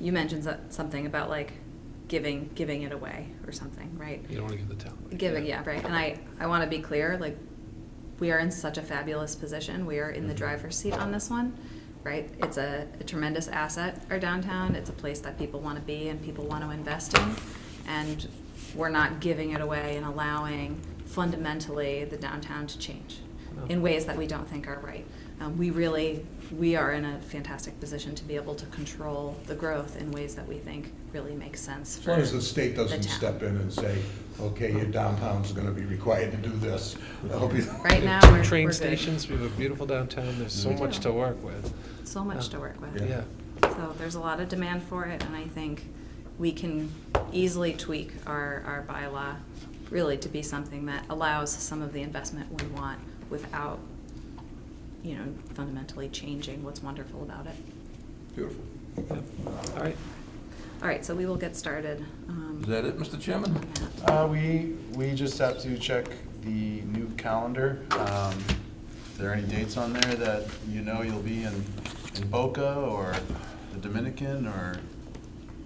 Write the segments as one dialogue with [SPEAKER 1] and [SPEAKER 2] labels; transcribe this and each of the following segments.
[SPEAKER 1] you mentioned so- something about like giving, giving it away or something, right?
[SPEAKER 2] You don't want to give the town. away.
[SPEAKER 1] Giving, yeah, right. And I, I want to be clear, like, we are in such a fabulous position. We are in the
[SPEAKER 3] Mm-hmm.
[SPEAKER 2] Mhm.
[SPEAKER 1] driver's seat on this one, right? It's a, a tremendous asset, our downtown. It's a place that people want to be and people want to invest in. And we're not giving it away and allowing fundamentally the downtown to change
[SPEAKER 2] No.
[SPEAKER 1] in ways that we don't think are right. Um, we really, we are in a fantastic position to be able to control the growth in ways that we think really make sense
[SPEAKER 3] As
[SPEAKER 1] for
[SPEAKER 3] long as the state doesn't
[SPEAKER 1] town.
[SPEAKER 3] step in and say, okay, your downtown's gonna be required to do this. That'll be-
[SPEAKER 1] Right
[SPEAKER 2] We
[SPEAKER 1] now,
[SPEAKER 2] have two
[SPEAKER 1] we're-
[SPEAKER 2] Train
[SPEAKER 1] we're good.
[SPEAKER 2] stations, we have a beautiful downtown, there's so
[SPEAKER 1] We
[SPEAKER 2] much
[SPEAKER 1] do.
[SPEAKER 2] to work with.
[SPEAKER 1] So much to work with.
[SPEAKER 3] Yeah.
[SPEAKER 2] Yeah.
[SPEAKER 1] So there's a lot of demand for it, and I think we can easily tweak our, our bylaw really to be something that allows some of the investment we want without, you know, fundamentally changing what's wonderful about it.
[SPEAKER 3] Beautiful.
[SPEAKER 2] Yep. All right,
[SPEAKER 1] All right, so we will get started. um,
[SPEAKER 4] Is that it, Mr. Chairman?
[SPEAKER 1] on that.
[SPEAKER 5] Uh, we, we just have to check the new calendar. Um, If there are any dates on there that you know you'll be in, in Boca or the Dominican or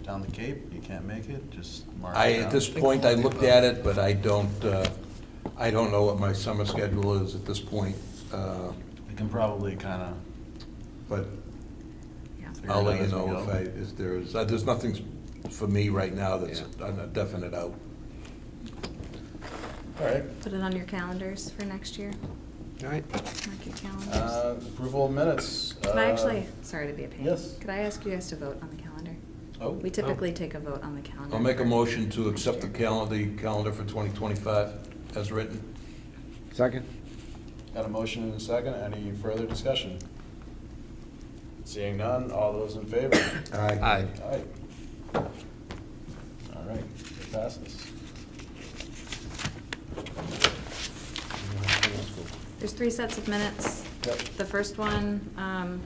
[SPEAKER 5] down the Cape, you can't make it, just mark it
[SPEAKER 4] I, at
[SPEAKER 5] down.
[SPEAKER 4] this point, I looked at it, but I don't, uh, I don't know what my summer schedule is at this point. uh,
[SPEAKER 5] We can probably kind
[SPEAKER 4] But
[SPEAKER 1] Yeah.
[SPEAKER 5] of.
[SPEAKER 4] I'll let you know if I, if there is, uh, there's nothing s- for me right now that's
[SPEAKER 2] Yeah.
[SPEAKER 4] a definite out.
[SPEAKER 5] All right.
[SPEAKER 1] Put it on your calendars for next year.
[SPEAKER 2] all right.
[SPEAKER 1] Mark your calendars.
[SPEAKER 5] Uh, Approval of minutes.
[SPEAKER 1] Can I
[SPEAKER 5] Uh,
[SPEAKER 1] actually, sorry to be a pain.
[SPEAKER 5] yes.
[SPEAKER 1] Could I ask you guys to vote on the calendar?
[SPEAKER 5] Oh.
[SPEAKER 1] We typically take a vote on the calendar.
[SPEAKER 4] I'll make a
[SPEAKER 1] for
[SPEAKER 4] motion to
[SPEAKER 1] next
[SPEAKER 4] accept the
[SPEAKER 1] year.
[SPEAKER 4] calendar, calendar for 2025 as written.
[SPEAKER 6] Second?
[SPEAKER 5] Uh, Got a motion and a second. Any further discussion? Seeing none, all those in favor?
[SPEAKER 2] Aye.
[SPEAKER 5] Aye. All right, it passes.
[SPEAKER 1] There's three sets of minutes.
[SPEAKER 5] Yep.
[SPEAKER 1] The first one um,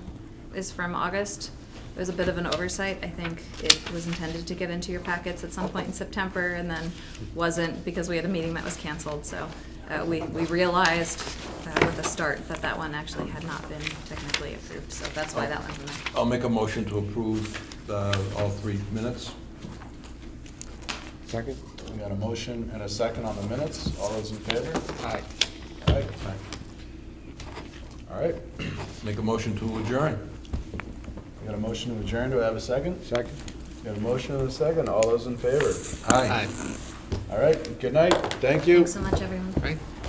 [SPEAKER 1] is from August. It was a bit of an oversight. I think it was intended to get into your packets at some point in September and then wasn't because we had a meeting that was canceled. So uh, we we realized uh, with a start that that one actually had not been technically approved. So that's why that one's in there.
[SPEAKER 4] I'll make a motion to approve uh, all three minutes.
[SPEAKER 6] Second?
[SPEAKER 5] We got a motion and a second on the minutes. All those in favor?
[SPEAKER 2] Aye.
[SPEAKER 5] Aye. All right,
[SPEAKER 4] Make a motion to adjourn.
[SPEAKER 5] we got a motion to adjourn. Do I have a second?
[SPEAKER 6] Second?
[SPEAKER 5] Got a motion and a second. All those in favor?
[SPEAKER 4] Aye.
[SPEAKER 2] Aye,
[SPEAKER 5] All right, good night. Thank you.
[SPEAKER 1] Thanks so much, everyone.
[SPEAKER 2] right?